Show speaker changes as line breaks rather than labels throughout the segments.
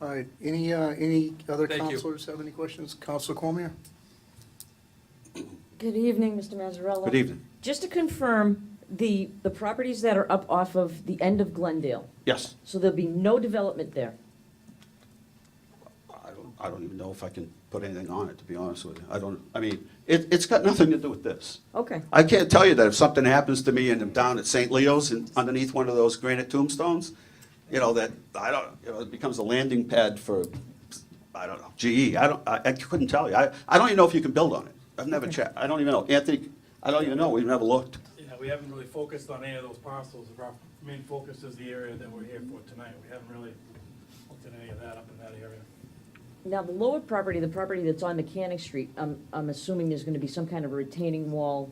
All right, any, uh, any other
Thank you.
counselors have any questions? Counselor Cormier?
Good evening, Mr. Mazzarella.
Good evening.
Just to confirm, the, the properties that are up off of the end of Glendale,
Yes.
so there'll be no development there.
I don't, I don't even know if I can put anything on it, to be honest with you. I don't, I mean, it, it's got nothing to do with this.
Okay,
I can't tell you that if something happens to me and I'm down at St. Leo's and underneath one of those granite tombstones, you know, that, I don't, you know, it becomes a landing pad for, I don't know, GE. I don't, I, I couldn't tell you. I, I don't even know if you can build on it. I've never checked. I don't even know. Anthony, I don't even know. We've never looked.
Yeah, we haven't really focused on any of those parcels. Our main focus is the area that we're here for tonight. We haven't really looked at any of that up in that area.
now the lower property, the property that's on Mechanic Street, I'm, I'm assuming there's gonna be some kind of a retaining wall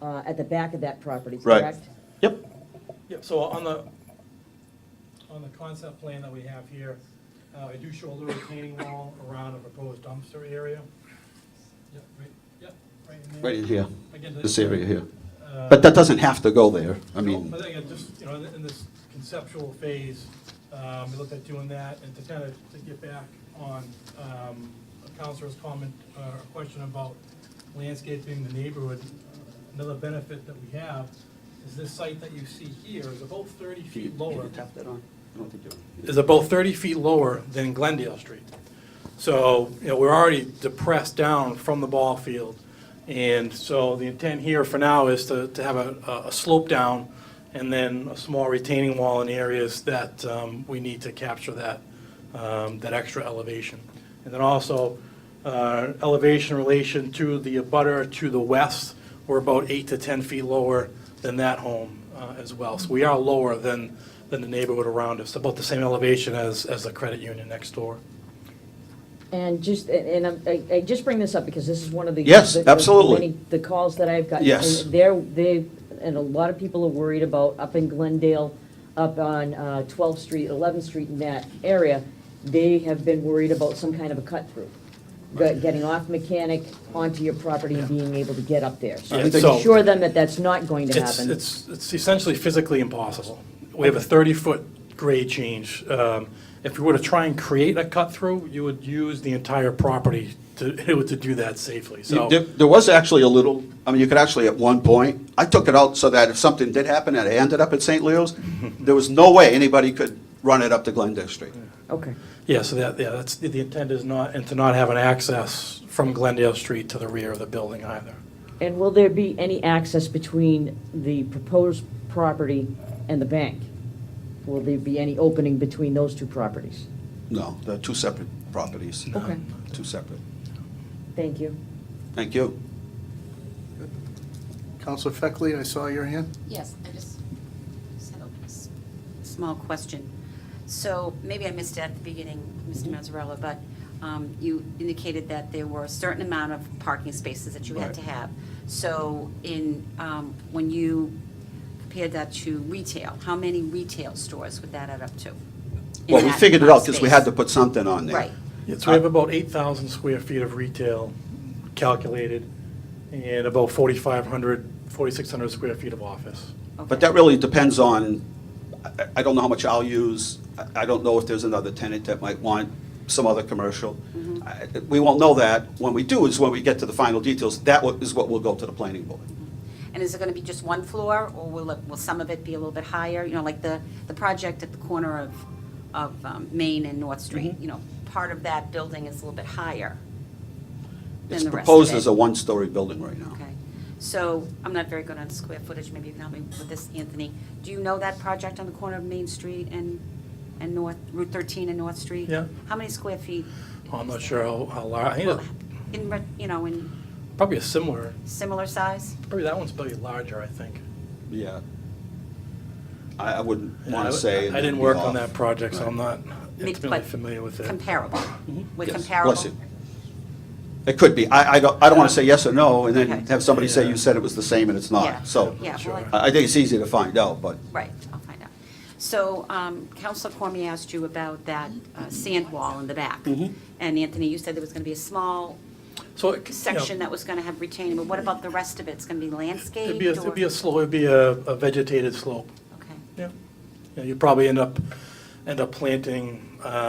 uh, at the back of that property,
Right.
correct?
Yep.
Yeah, so on the, on the concept plan that we have here, uh, I do show a little retaining wall around a proposed dumpster area. Yep, right, yep, right in there.
Right in here,
Again,
this area here.
uh,
But that doesn't have to go there. I
No,
mean,
I think it just, you know, in in this conceptual phase, um, we looked at doing that, and to kind of, to get back on um, a Counselor's comment, uh question about landscaping the neighborhood, another benefit that we have is this site that you see here is about thirty
Can you-
feet
can
lower
you tap that on? I don't think you-
is about 30 feet lower than Glendale Street. So, you know, we're already depressed down from the ball field. And so the intent here for now is to, to have a, a- a slope down and then a small retaining wall in areas that um, we need to capture that, um, that extra elevation. And then also, uh, elevation relation to the abutter to the west, we're about eight to 10 feet lower than that home uh, as well. So we are lower than, than the neighborhood around us, about the same elevation as, as the credit union next door.
And just, and I'm- I, I just bring this up because this is one of the.
Yes,
the- the
absolutely.
many- The calls that I've gotten.
Yes.
And They're, they, and a lot of people are worried about up in Glendale, up on uh, 12th Street, 11th Street in that area. They have been worried about some kind of a cut through, Go- getting off mechanic onto your property and being able to get up there. So
Yeah,
we
so-
assure them that that's not going to
It's,
happen.
it's, it's essentially physically impossible. We have a 30-foot grade change. Um, If we were to try and create a cut-through, you would use the entire property to, to do that safely, so.
There there was actually a little, I mean, you could actually, at one point, I took it out so that if something did happen and I ended up at St. Leo's, there was no way anybody could run it up to Glendale Street.
Okay.
Yeah, so that, yeah, that's, the intent is not, and to not have an access from Glendale Street to the rear of the building either.
And will there be any access between the proposed property and the bank? Will there be any opening between those two properties?
No, they're two separate properties.
Okay.
Two separate.
Thank you.
Thank you.
Counselor Feckley, I saw your hand.
Yes, I just just have a s- small question. So maybe I missed it at the beginning, Mr. Mazzarella, but um, you indicated that there were a certain amount of parking spaces that you had to have. So in, um, when you compared that to retail, how many retail stores would that add up to? in
Well, we
that
figured it out
amount of
because we had to
space?
put something on there.
Right.
Yeah, so we have about 8,000 square feet of retail calculated, and about 4,500, 4,600 square feet of office.
Okay.
But that really depends on, I- I don't know how much I'll use, I- I don't know if there's another tenant that might want some other commercial.
Mm-hmm.
I- We won't know that. When we do is when we get to the final details, that wa- is what will go to the planning board.
And is it going to be just one floor, or will, it- will some of it be a little bit higher? You know, like the, the project at the corner of, of um, Main and North Street, you know, part of that building is a little bit higher
It's
than the rest
proposed
of it.
as a one-story building right now.
Okay. So I'm not very good on square footage, maybe you can help me with this, Anthony. Do you know that project on the corner of Main Street and, and North, Route 13 and North Street?
Yeah.
How many square feet?
Oh, I'm not sure how, how large, I think it's
In, re- you know, in
probably a similar,
similar size?
probably that one's probably larger, I think.
Yeah. I, I wouldn't
Yeah, I-
want to say.
I didn't work on that project, so I'm not intimately
But
familiar with it.
Comparable. We're
Yes,
comparable?
bless you. It could be. I, I don't, I don't want to say yes or no, and
Um, Okay.
then have somebody say
Yeah.
you said it was the same and it's
Yeah.
not. So,
Yeah, well, I-
I, I think it's easy to find out, but
Right, I'll find out. So um, Counselor Cormier asked you about that uh, sand wall in the back.
Mm-hmm.
And Anthony, you said there was going to be a small
So it- you know,
section that was going to have retaining, but what about the rest of it? It's going to be landscaped?
It'd be, a- it'd be
or-
a slope, it'd be a a vegetated slope,
Okay.
yeah. Yeah, You'd probably end up, end up planting, uh,